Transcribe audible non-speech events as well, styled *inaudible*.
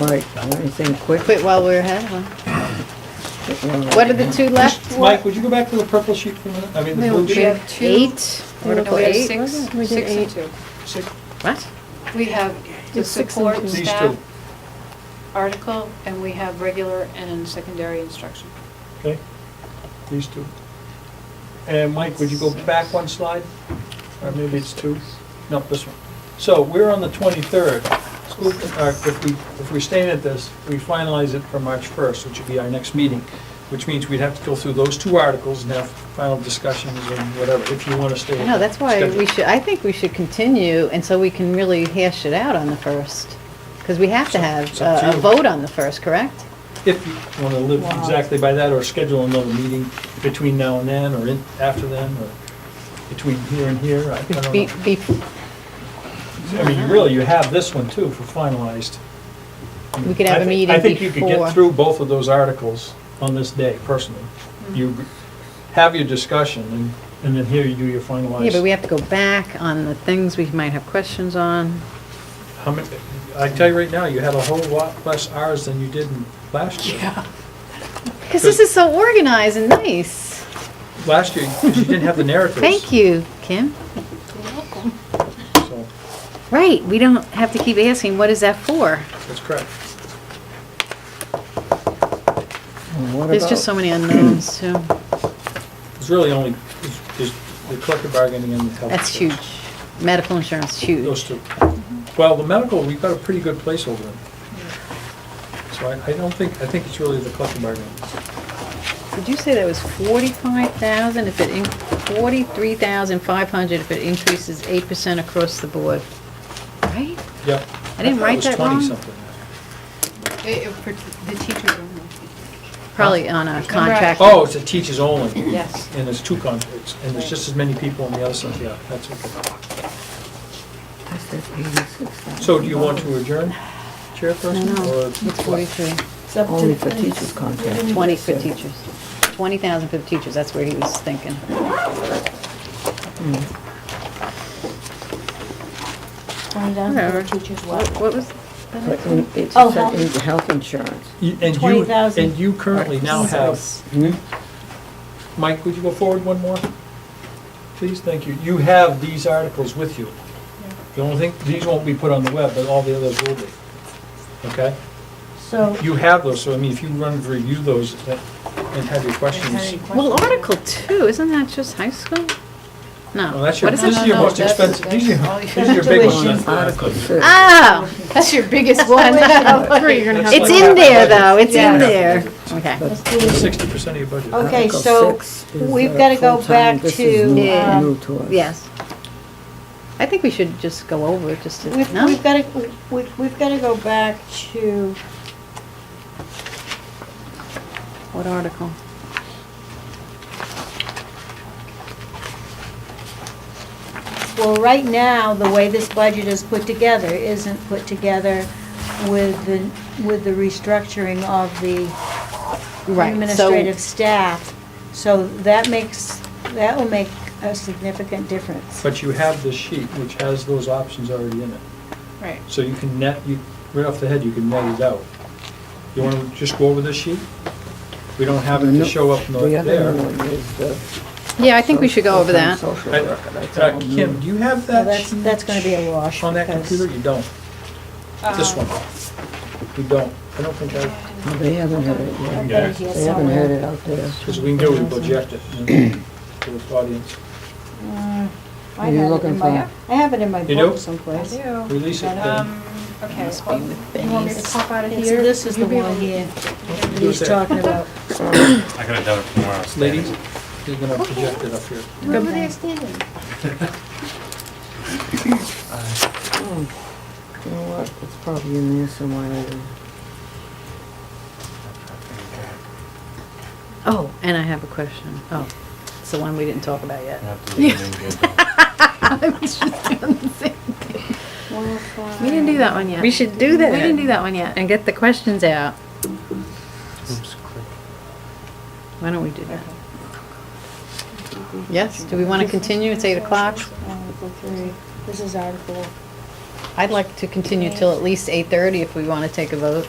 Right, anything quick? Quit while we're ahead, huh? What are the two left? Mike, would you go back to the purple sheet for a minute? I mean, the No, blue we sheet? have two. Eight? No, Article we have eight? six, We did six and two. Six- What? We have the It's six support and two. These staff two. article, and we have regular and secondary instruction. Okay, these two. And Mike, would you go back one slide? Or maybe it's two? No, this one. So we're on the 23rd. School- uh, If we, if we stay at this, we finalize it for March 1st, which would be our next meeting, which means we'd have to go through those two articles and have final discussions and whatever, if you want to stay. No, that's why schedule. we should, I think we should continue, and so we can really hash it out on the first. Because we have to have It's up to a a you. vote on the first, correct? If you want to live exactly by that, or schedule another meeting between now and then, or in, after then, or between here and here, I I don't Be, know. be, I mean, really, you have this one too for finalized. I mean, We could have I a thi- meeting I think you could before. get through both of those articles on this day personally. Mm-hmm. You g- have your discussion and, and then here you do your yeah, but we finalized. have to go back on the things we might have questions on. How many, I tell you right now, you had a whole lot less hours than you did in last year. Because this is so organized and nice. Last year, 'cause you didn't *laughs* have the narratives. Thank you, Kim. So, Right, we don't have to keep asking, what is that for? that's correct. There's just so many unknowns, too. It's really only, is the collective bargaining and the health. That's insurance. huge. Medical insurance, Those huge. two. Well, the medical, we've got a pretty good placeholder in. So I, I don't think, I think it's really the collective bargaining. Did you say that was forty-five thousand if it, in forty-three thousand five hundred if it increases eight percent across the board? Right? Yep. I didn't thought write that wrong. It was 20-something. It- it- for The teachers only. Probably on a contract. Oh, it's a teachers only. Yes. And there's two contracts, and there's just as many people on the other side, yeah, that's okay. So do you want to adjourn, No, chairperson? no, or it's what? forty-three. It's up to Only for the- teachers' contract. Twenty for teachers. Twenty thousand for the teachers, that's where he was thinking. Twenty down for Whatever. the teachers' What what? what was, But in- It's Oh, set health. into health insurance. You- And you, 20,000. and you currently now have, Hmm? Mike, would you go forward one more? Please, thank you. You have these articles with you. The only thing, these won't be put on the web, but all the others will be. Okay? So, You have those, so I mean, if you run to review those that- and have your questions. well, Article Two, isn't that just high school? No. Well, that's your, What is this it? is your No, no, most that's- expensive, these are, that's these are your big tuition. ones. Article two. Oh, That's your biggest *laughs* one. it's in there, though, it's in Yeah. there. Okay. let's do this. Sixty percent of your budget. Okay, Article so six is, we've uh, gotta go full-time. back This to, uh, is new- Yeah. new to us. Yes. I think we should just go over it just to, We've, no? we've gotta, we've, we've gotta go back to, What article? well, right now, the way this budget is put together isn't put together with the, with the restructuring of the administrative staff. So that makes, that will make a significant difference. But you have this sheet, which has those options already in it. Right. So you can net, you, right off the head, you can net it out. You wanna just go over this sheet? We don't have it to No. show up no- The other there. one is the. Yeah, I think we should go over full-time that. social I- worker. That's Uh, all new. Kim, do you have So that that's, sheet that's gonna be a wash on that because- computer? You don't. This one. Uh, You don't. I don't think I, No, They haven't had it yet. I've got it here They haven't had somewhere. it out there. because we can do is project it and then to the audience. Mm, I Are you had it looking in my, for- I have it in my You do? book someplace. do. Release it then. Um, okay, well, you want me to pop out of It's- here? This is You the be one able- here Do it he's there. talking about. I could have done it tomorrow. Ladies, you're gonna project it up here. Where were they standing? Oh, You know what, it's probably in there somewhere. Oh, and I have a question. Oh, it's the one we didn't talk about yet. *laughs* We didn't do that one yet. We should do We didn't do that that one yet. and get the questions out. Why don't we do that? Yes, do we want to continue? It's eight o'clock. Article three, this is article I'd like to continue till at least eight thirty if we want to take a vote.